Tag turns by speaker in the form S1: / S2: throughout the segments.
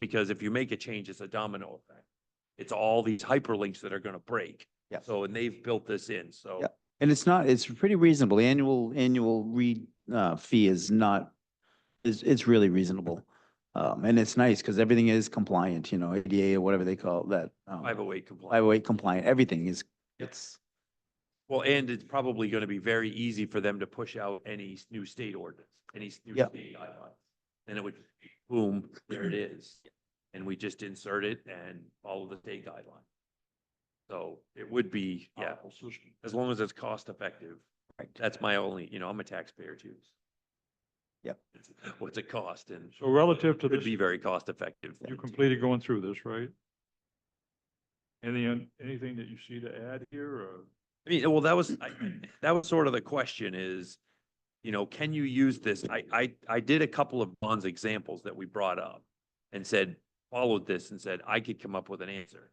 S1: Because if you make a change, it's a domino effect. It's all these hyperlinks that are gonna break.
S2: Yes.
S1: So, and they've built this in, so.
S2: Yep. And it's not, it's pretty reasonable. The annual, annual re, uh, fee is not, is, it's really reasonable. Um, and it's nice because everything is compliant, you know, ADA or whatever they call that. um,
S1: Five oh eight compliant.
S2: 508 compliant, everything is,
S1: Yep.
S2: it's,
S1: Well, and it's probably gonna be very easy for them to push out any s- new state ordinance, any s- new
S2: Yep.
S1: state guidelines. And it would, be boom, there it is. And we just insert it and follow the state guideline. So it would be, yeah,
S3: Uh,
S1: as long as it's cost effective.
S2: Right.
S1: That's my only, you know, I'm a taxpayer too.
S2: Yep.
S1: What's it cost and
S3: So relative to
S1: could
S3: this,
S1: be very cost effective.
S3: you completed going through this, right? Any, anything that you see to add here or?
S1: I mean, well, that was, I, I- that was sort of the question is, you know, can you use this? I, I, I did a couple of bonds examples that we brought up and said, followed this and said, I could come up with an answer.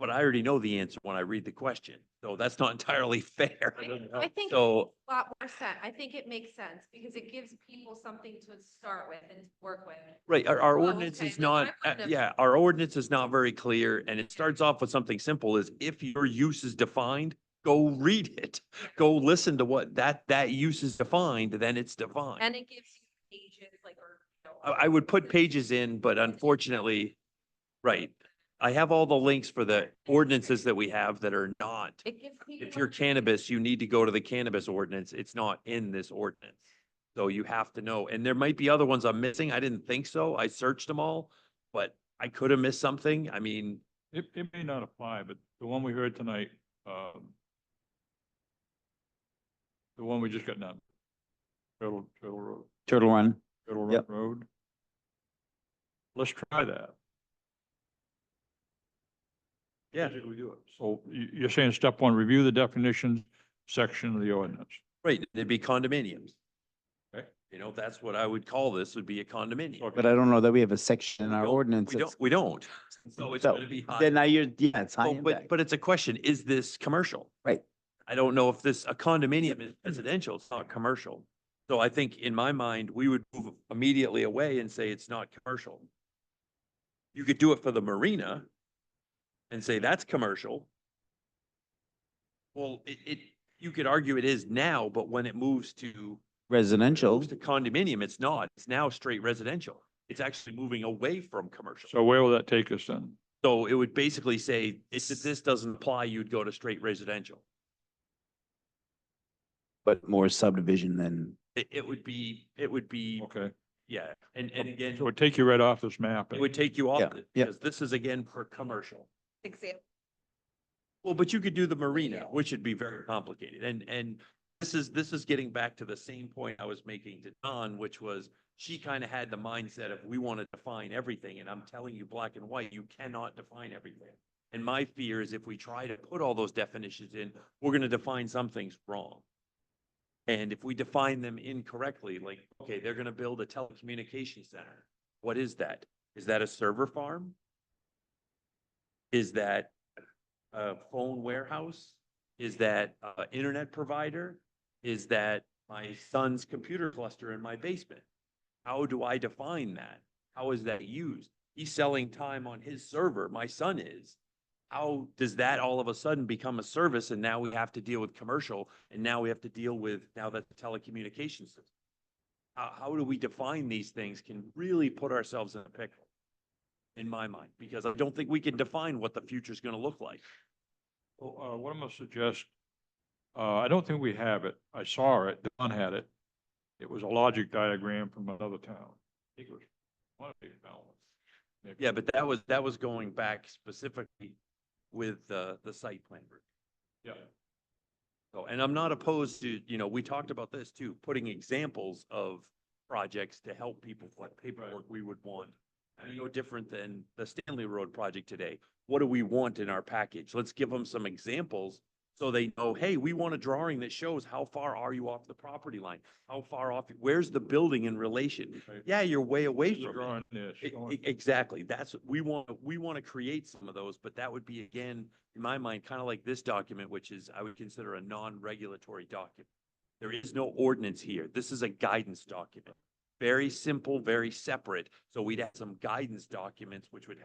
S1: But I already know the answer when I read the question, so that's not entirely fair.
S4: I think a
S1: So,
S4: lot more sense. I think it makes sense because it gives people something to start with and work with.
S1: right, our, our
S4: Oh,
S1: ordinance
S4: okay,
S1: is
S4: then I
S1: not,
S4: wouldn't
S1: uh,
S4: have-
S1: yeah, our ordinance is not very clear and it starts off with something simple is if your use is defined, go read it. Go listen to what that, that use is defined, then it's defined.
S4: And it gives you pages like, or. you know,
S1: I, I would put pages in, but unfortunately, right. I have all the links for the ordinances that we have that are not.
S4: It gives people.
S1: If you're cannabis, you need to go to the cannabis ordinance. It's not in this ordinance. So you have to know, and there might be other ones I'm missing. I didn't think so. I searched them all, but I could have missed something. I mean,
S3: It, it may not apply, but the one we heard tonight, um, the one we just got done, Turtle, Turtle Road,
S2: Turtle Run.
S3: Turtle Run
S2: Yep.
S3: Road. Let's try that.
S1: Yeah.
S3: Basically do it. So you, you're saying step one, review the definition section of the ordinance.
S1: right, there'd be condominiums.
S3: Okay.
S1: You know, that's what I would call this, would be a condominium.
S3: Okay.
S2: But I don't know that we have a section in our
S1: don't-
S2: ordinance.
S1: We don't,
S2: that's-
S1: we don't. So it's
S2: So
S1: gonna be high.
S2: Then now you're, yeah, it's high
S1: Well, Oh, but,
S2: impact.
S1: but it's a question, is this commercial?
S2: Right.
S1: I don't know if this, a condominium is residential, it's not commercial. So I think in my mind, we would move immediately away and say it's not commercial. You could do it for the marina and say that's commercial. Well, it, it, you could argue it is now, but when it moves to
S2: Residential,
S1: moves to condominium, it's not. It's now straight residential. It's actually moving away from commercial.
S3: So where will that take us then?
S1: So it would basically say, if this doesn't apply, you'd go to straight residential.
S2: but more subdivision than,
S1: It, it would be, it would be,
S3: Okay,
S1: yeah, and, and again,
S3: so it would take you right off this map.
S1: it would take you off,
S2: Yeah,
S1: it,
S2: yeah.
S1: because this is again per commercial.
S4: Example.
S1: Well, but you could do the marina, which would be very complicated, and, and this is, this is getting back to the same point I was making to Don, which was she kind of had the mindset of, we want to define everything, and I'm telling you, black and white, you cannot define everything. And my fear is if we try to put all those definitions in, we're going to define some things wrong. And if we define them incorrectly, like, okay, they're going to build a telecommunications center. What is that? Is that a server farm? Is that a phone warehouse? Is that uh internet provider? Is that my son's computer cluster in my basement? How do I define that? How is that used? He's selling time on his server, my son is. How does that all of a sudden become a service and now we have to deal with commercial and now we have to deal with, now that's a telecommunications system? How, how do we define these things can really put ourselves in a pickle, in my mind, because I don't think we can define what the future's gonna look like.
S3: Well, uh, what I'm gonna suggest, uh, I don't think we have it. I saw it, Don had it. It was a logic diagram from another town. I think it was one of the towns. Maybe.
S1: Yeah, but that was, that was going back specifically with the, the site plan. review.
S3: Yeah,
S1: So, and I'm not opposed to, you know, we talked about this too, putting examples of projects to help people, what paperwork we would want. I mean, no different than the Stanley Road project today. What do we want in our package? Let's give them some examples so they know, hey, we want a drawing that shows how far are you off the property line? How far off, where's the building in relation?
S3: Right.
S1: Yeah, you're way away
S3: Here's a
S1: from it.
S3: drawing this.
S1: E-
S3: showing-
S1: e- Exactly. That's, we want, we want to create some of those, but that would be again, in my mind, kind of like this document, which is, I would consider a non-regulatory document. There is no ordinance here. This is a guidance document. very simple, very separate. So we'd have some guidance documents which would help